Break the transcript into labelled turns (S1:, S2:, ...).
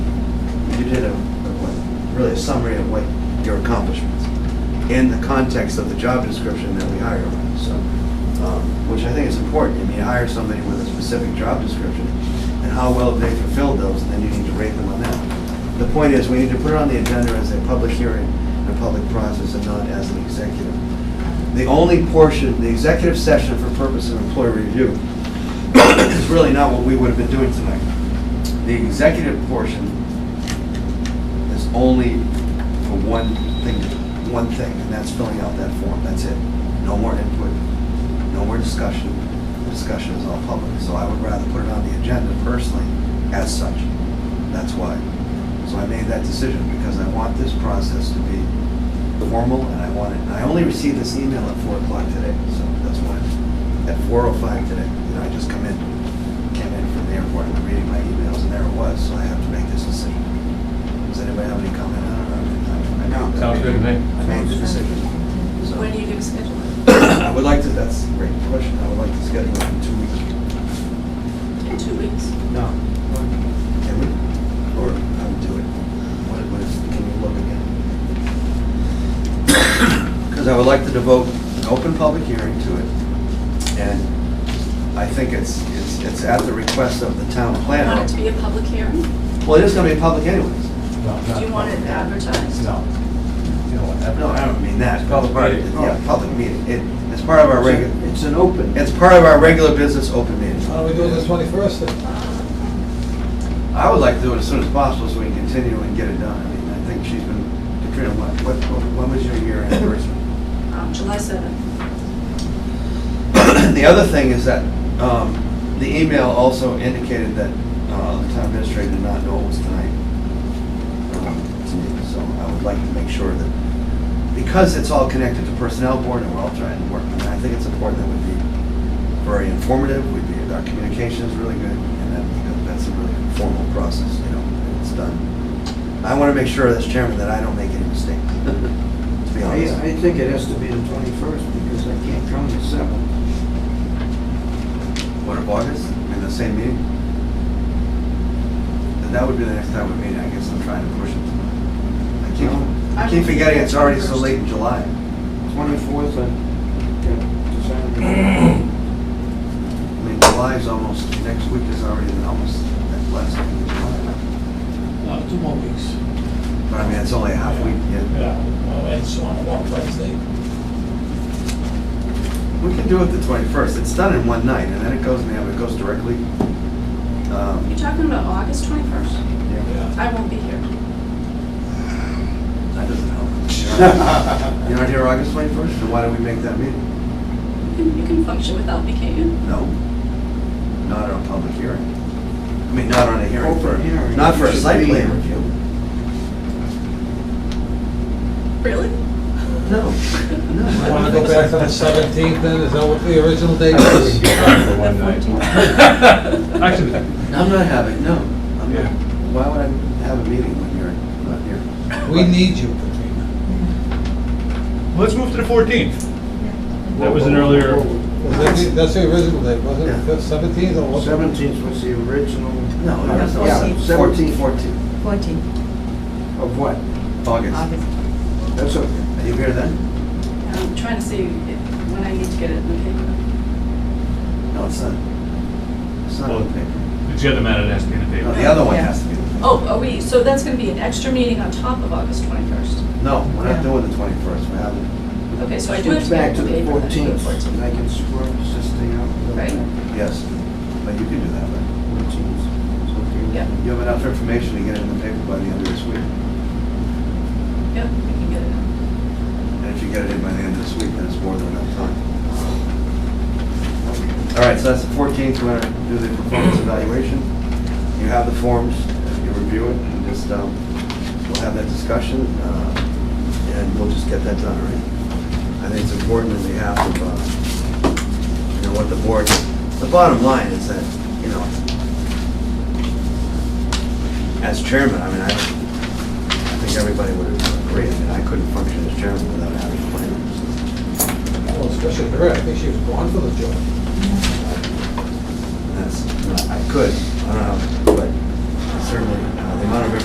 S1: did a, a- what- really a summary of what your accomplishments in the context of the job description that we hire on, so, um, which I think is important. I mean, you hire somebody with a specific job description, and how well have they fulfilled those, and then you need to rate them on that. The point is, we need to put it on the agenda as a public hearing and a public process and not as an executive. The only portion, the executive session for purpose of employee review is really not what we would have been doing tonight. The executive portion is only for one thing, one thing, and that's filling out that form, that's it. No more input, no more discussion, discussion is all public, so I would rather put it on the agenda personally as such. That's why. So I made that decision because I want this process to be formal and I want it, and I only received this email at four o'clock today, so that's why. At four oh five today, you know, I just come in, came in from the airport and reading my emails and there it was, so I have to make this decision. Does anybody have any comment on it? or- I- I-
S2: No. Sounds good to me.
S1: I made the decision. so.
S3: When are you gonna schedule it?
S1: I would like to, that's a great question, I would like to schedule it in two weeks.
S3: In two weeks?
S1: No. Can we? Or I would do it, what, what is, can you look again? Because I would like to devote an open public hearing to it, and I think it's, it's, it's at the request of the town
S3: You want it to
S1: planner.
S3: be a public hearing? Do
S1: Well, it is gonna be public anyways.
S3: you want it advertised?
S2: No. You know what,
S1: No, I don't mean that.
S2: It's public meeting.
S1: Yeah, public meeting, it, it's part of our regular,
S4: It's an open.
S1: it's part of our regular business open meeting.
S2: Oh,
S5: Why don't we do it the twenty-first then?
S1: I would like to do it as soon as possible so we can continue and get it done. I mean, I think she's been, Katrina, what, what, when was your year anniversary?
S3: Um, July seventh.
S1: The other thing is that, um, the email also indicated that, uh, the town administrator did not know it was tonight. Um, to me. So I would like to make sure that, because it's all connected to personnel board and we're all trying to work, on it, I think it's important that we be very informative, we be, our communication is really good, and that, because that's a really formal process, you know, and it's done. I wanna make sure as chairman that I don't make any mistake, to be
S4: I,
S1: honest.
S4: I think it has to be the twenty-first because I can't come the seventh.
S1: What, of August, in the same meeting? And That would be the next time we meet, I guess I'm trying to push it. I keep, I keep forgetting it's already so late in July.
S4: Twenty-fourth, I got decided.
S1: I mean, July is almost, next week is already almost that last week of July.
S6: No, two more weeks.
S1: But I mean, it's only a half week, yeah.
S6: Yeah, well, it's on one Wednesday.
S1: We can do it the twenty-first, it's done in one night, and then it goes, now it goes directly. um,
S3: You're talking about August twenty-first?
S1: yeah,
S6: Yeah.
S3: I won't be here.
S1: That doesn't help. You're not here August twenty-first, then why do we make that meeting?
S3: You can, you can function without me, can't you?
S1: No, not on a public hearing. I mean, not on a hearing for,
S4: Open hearing.
S1: not for a
S4: It should
S1: site
S4: be.
S1: plan review.
S3: Really?
S1: No, no.
S5: Want to go back to the seventeenth then, is that what the original date was?
S2: For one night. Actually,
S1: I'm not having, no. I'm not.
S2: Yeah.
S1: Why would I have a meeting when you're not here?
S5: We need you, Katrina.
S2: let's move to the fourteenth. That was an
S1: Whoa, whoa,
S2: earlier,
S1: whoa, whoa.
S5: Was that the- That's the original date, wasn't
S1: Yeah.
S5: it, seventeenth or what?
S4: Seventeenth was the original.
S1: No, that's
S4: Yeah,
S1: not, fourteen,
S4: Seventeenth
S1: fourteen,
S7: 14,
S4: of what?
S1: August.
S7: August.
S4: That's okay.
S1: Are you here then?
S3: I'm trying to see if, when I need to get it in the paper.
S1: No, it's not. It's not on the paper.
S2: the other matter that has to be in the
S1: No,
S2: paper.
S1: the other one
S7: Yeah.
S1: has to be. on the paper.
S3: Oh, are we, so that's gonna be an extra meeting on top of August twenty-first?
S1: No, we're not
S7: Yeah.
S1: doing the twenty-first, we're having.
S3: Okay, so I do have to
S4: Switch
S3: get
S4: back
S3: it
S4: to
S3: in the
S4: the
S3: paper. then, to the
S4: fourteenth, and I can squirm this thing out. a little
S3: Right.
S4: bit.
S1: Yes, but you can do that, right?
S4: 14th, it's okay.
S3: Yeah,
S1: You have enough information to get it in the paper by the end of this week.
S3: yeah, we can get it in.
S1: And if you get it in by the end of this week, then it's more than enough time. All right, so that's the fourteenth, we're gonna do the performance evaluation. You have the forms, you review it, and just, um, we'll have that discussion, uh, and we'll just get that done, all right? I think it's important on behalf of, uh, you know, what the board, the bottom line is that, you know, as chairman, I mean, I, I think everybody would agree, I mean, I couldn't function as chairman without having a plan, so.
S5: Well, especially her, I think she was born for the job.
S1: That's, I could, I don't know, but certainly, uh, the amount of